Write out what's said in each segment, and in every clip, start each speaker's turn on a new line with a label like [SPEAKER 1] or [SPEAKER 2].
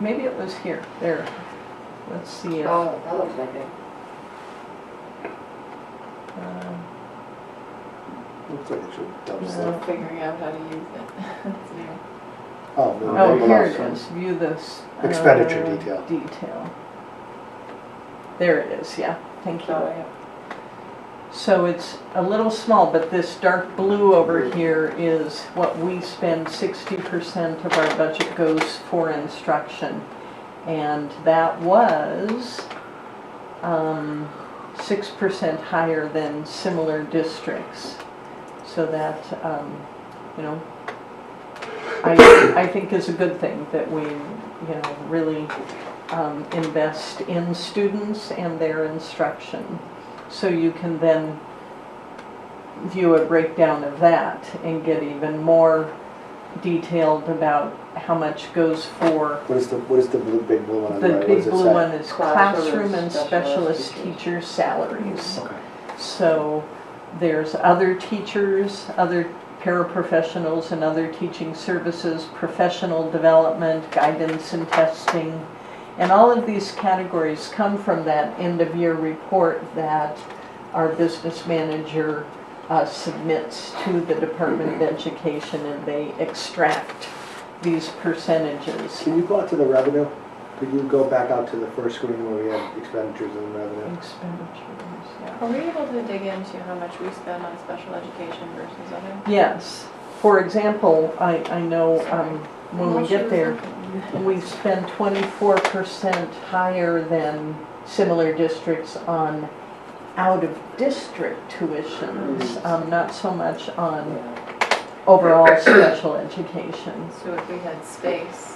[SPEAKER 1] Maybe it was here, there. Let's see. if,
[SPEAKER 2] Oh, that looks like it.
[SPEAKER 1] um,
[SPEAKER 3] Looks like it should double
[SPEAKER 4] Still
[SPEAKER 3] that.
[SPEAKER 4] figuring out how to use it. It's new.
[SPEAKER 3] Oh, no,
[SPEAKER 1] Oh,
[SPEAKER 3] no,
[SPEAKER 1] here
[SPEAKER 3] no,
[SPEAKER 1] it
[SPEAKER 3] no.
[SPEAKER 1] is, view this. uh,
[SPEAKER 3] Expenditure detail.
[SPEAKER 1] Detail. There it is, yeah, thank
[SPEAKER 4] So,
[SPEAKER 1] you.
[SPEAKER 4] yeah.
[SPEAKER 1] So it's a little small, but this dark blue over here is what we spend sixty percent of our budget goes for instruction. And that was, um, six percent higher than similar districts. So that, um, you know, I, I think is a good thing that we, you know, really, um, invest in students and their instruction. So you can then view a breakdown of that and get even more detailed about how much goes for.
[SPEAKER 3] What is the, what is the blue, big blue one on the
[SPEAKER 1] The
[SPEAKER 3] right? What
[SPEAKER 1] big
[SPEAKER 3] does it
[SPEAKER 1] blue
[SPEAKER 3] say?
[SPEAKER 1] one is classroom and specialist teacher salaries.
[SPEAKER 3] Okay.
[SPEAKER 1] So there's other teachers, other paraprofessionals and other teaching services, professional development, guidance and testing. And all of these categories come from that end of year report that our business manager uh, submits to the Department of Education and they extract these percentages.
[SPEAKER 3] Can you go out to the revenue? Could you go back out to the first screen where we had expenditures and revenue?
[SPEAKER 1] Expenditures, yeah.
[SPEAKER 4] Are we able to dig into how much we spend on special education versus other?
[SPEAKER 1] Yes, for example, I, I know um, when we
[SPEAKER 4] Well, she
[SPEAKER 1] get
[SPEAKER 4] was
[SPEAKER 1] there,
[SPEAKER 4] looking.
[SPEAKER 1] We spend twenty-four percent higher than similar districts on out-of-district tuitions,
[SPEAKER 5] Mm-hmm.
[SPEAKER 1] um, not so much on
[SPEAKER 2] Yeah.
[SPEAKER 1] overall special education.
[SPEAKER 4] So if we had space,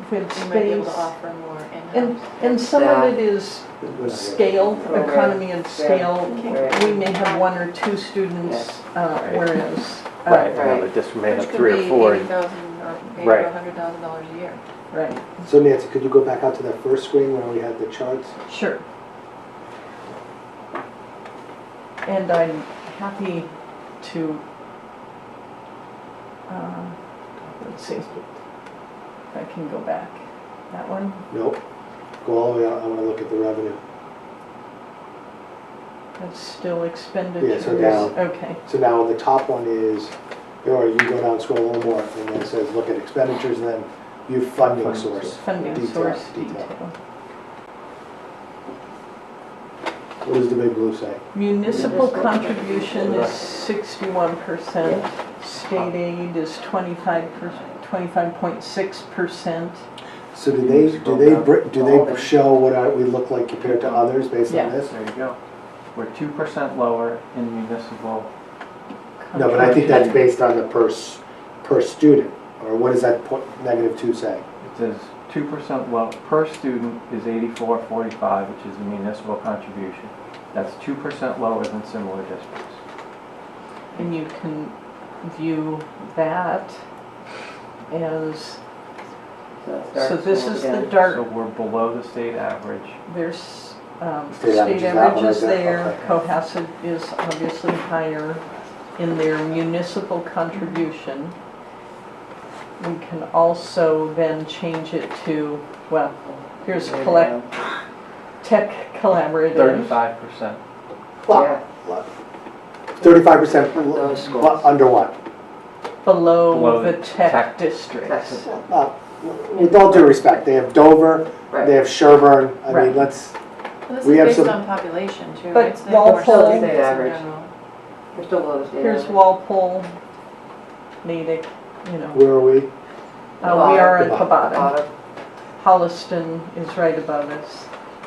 [SPEAKER 1] If we had
[SPEAKER 4] we might be able to
[SPEAKER 1] space,
[SPEAKER 4] offer more
[SPEAKER 1] and,
[SPEAKER 4] in-house.
[SPEAKER 1] and some of it is scale,
[SPEAKER 2] Right.
[SPEAKER 1] economy and scale.
[SPEAKER 2] Right.
[SPEAKER 1] We may have one or two students, uh,
[SPEAKER 5] Right.
[SPEAKER 1] whereas, uh,
[SPEAKER 6] Oh,
[SPEAKER 5] Right, now they just may have three or four.
[SPEAKER 4] Which could be eighty thousand or maybe
[SPEAKER 5] Right.
[SPEAKER 4] a hundred thousand dollars a year.
[SPEAKER 1] right,
[SPEAKER 3] So Nancy, could you go back out to that first screen where we had the charts?
[SPEAKER 1] sure. And I'm happy to, uh, let's see, if I can go back. That one?
[SPEAKER 3] Nope. Go all the way out, I wanna look at the revenue.
[SPEAKER 1] That's still expenditures?
[SPEAKER 3] down.
[SPEAKER 1] Okay,
[SPEAKER 3] So now the top one is, or you go down, scroll a little more, and then it says, look at expenditures, and then view funding
[SPEAKER 5] Funding
[SPEAKER 3] source.
[SPEAKER 1] funding
[SPEAKER 3] Detail,
[SPEAKER 1] source
[SPEAKER 3] detail.
[SPEAKER 1] detail.
[SPEAKER 3] What does the big blue say?
[SPEAKER 1] Municipal
[SPEAKER 2] Municipal
[SPEAKER 1] contribution
[SPEAKER 5] contribution.
[SPEAKER 1] is sixty-one percent, state aid is twenty-five percent, twenty-five point six percent.
[SPEAKER 3] So do they, do they, br- do they show what our- we look like compared to others based
[SPEAKER 1] Yeah.
[SPEAKER 3] on this?
[SPEAKER 6] There you go. We're two percent lower in municipal.
[SPEAKER 3] No, but I think that's based on the per, s- per student, or what does that po- negative two say?
[SPEAKER 6] It says two percent low per student is eighty-four forty-five, which is the municipal contribution. That's two percent lower than similar districts.
[SPEAKER 1] And you can view that as, so this is the
[SPEAKER 6] So
[SPEAKER 1] dark,
[SPEAKER 6] we're below the state average.
[SPEAKER 1] there's, um,
[SPEAKER 3] State
[SPEAKER 1] state
[SPEAKER 3] average is that one
[SPEAKER 1] average is
[SPEAKER 3] right there,
[SPEAKER 1] there, Cohasset is obviously higher in their municipal contribution. We can also then change it to, well, here's collect, tech collaborative.
[SPEAKER 6] Thirty-five percent.
[SPEAKER 2] Yeah,
[SPEAKER 3] Thirty-five percent
[SPEAKER 2] Those schools.
[SPEAKER 3] under what?
[SPEAKER 1] below
[SPEAKER 6] Below
[SPEAKER 1] the
[SPEAKER 6] the
[SPEAKER 1] tech
[SPEAKER 6] tech
[SPEAKER 1] districts.
[SPEAKER 3] Uh, With all due respect, they have Dover, they
[SPEAKER 2] right.
[SPEAKER 3] have Sherburne, I
[SPEAKER 1] Right.
[SPEAKER 3] mean, let's,
[SPEAKER 4] But This
[SPEAKER 3] We have
[SPEAKER 4] is based
[SPEAKER 3] some-
[SPEAKER 4] on population too.
[SPEAKER 1] But
[SPEAKER 4] It's not
[SPEAKER 1] y'all
[SPEAKER 4] more
[SPEAKER 1] tell-
[SPEAKER 4] states in
[SPEAKER 2] State average.
[SPEAKER 4] general.
[SPEAKER 2] We're still below the state
[SPEAKER 1] Here's
[SPEAKER 2] average.
[SPEAKER 1] Walpole, Natick, you know,
[SPEAKER 3] where are we?
[SPEAKER 1] Uh, we are at the
[SPEAKER 3] Bottom.
[SPEAKER 1] bottom.
[SPEAKER 2] Bottom.
[SPEAKER 1] Holliston is right above us,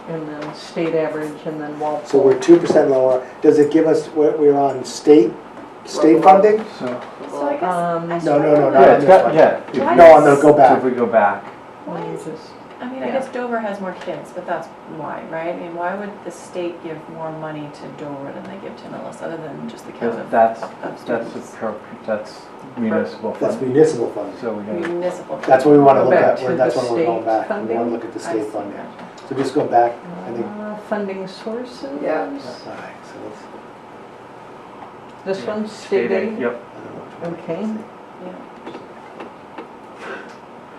[SPEAKER 1] and then state average, and then
[SPEAKER 3] So
[SPEAKER 1] Walpole.
[SPEAKER 3] we're two percent lower. Does it give us what we're on state, state
[SPEAKER 2] Local.
[SPEAKER 3] funding?
[SPEAKER 6] So,
[SPEAKER 4] So I guess.
[SPEAKER 1] Um,
[SPEAKER 4] I
[SPEAKER 3] No, no, no,
[SPEAKER 4] struggle
[SPEAKER 3] not
[SPEAKER 6] yeah,
[SPEAKER 3] on
[SPEAKER 6] it's
[SPEAKER 4] with-
[SPEAKER 6] got, yeah.
[SPEAKER 3] No,
[SPEAKER 4] Why
[SPEAKER 3] I'm gonna
[SPEAKER 4] does-
[SPEAKER 3] go
[SPEAKER 6] So
[SPEAKER 3] back.
[SPEAKER 6] if we go back,
[SPEAKER 4] Why
[SPEAKER 1] let me
[SPEAKER 4] is
[SPEAKER 1] just-
[SPEAKER 4] I mean, I
[SPEAKER 6] Yeah.
[SPEAKER 4] guess Dover has more kids, but that's why, right? I mean, why would the state give more money to Dover than they give to Millis, other than just the count
[SPEAKER 6] because
[SPEAKER 4] of
[SPEAKER 6] that's,
[SPEAKER 4] of
[SPEAKER 6] that's,
[SPEAKER 4] students?
[SPEAKER 6] a per- that's municipal
[SPEAKER 3] That's
[SPEAKER 6] funding.
[SPEAKER 3] municipal funding.
[SPEAKER 6] So we gotta
[SPEAKER 4] Municipal.
[SPEAKER 3] That's what we wanna
[SPEAKER 1] Go
[SPEAKER 3] look
[SPEAKER 1] back
[SPEAKER 3] at,
[SPEAKER 1] to
[SPEAKER 3] We're- that's
[SPEAKER 1] the
[SPEAKER 3] when we're going
[SPEAKER 1] state
[SPEAKER 3] back. We wanna
[SPEAKER 1] funding?
[SPEAKER 3] look at the
[SPEAKER 4] I
[SPEAKER 3] state
[SPEAKER 4] see,
[SPEAKER 3] funding.
[SPEAKER 4] gotcha.
[SPEAKER 3] So just go back, I think.
[SPEAKER 1] Uh, Funding sources?
[SPEAKER 2] Yeah.
[SPEAKER 3] All right, so let's-
[SPEAKER 1] This
[SPEAKER 6] Yeah.
[SPEAKER 1] one's state aid,
[SPEAKER 6] Yep,
[SPEAKER 3] I don't know which one.
[SPEAKER 1] Okay.
[SPEAKER 4] Yeah.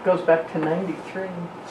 [SPEAKER 1] goes back to ninety-three.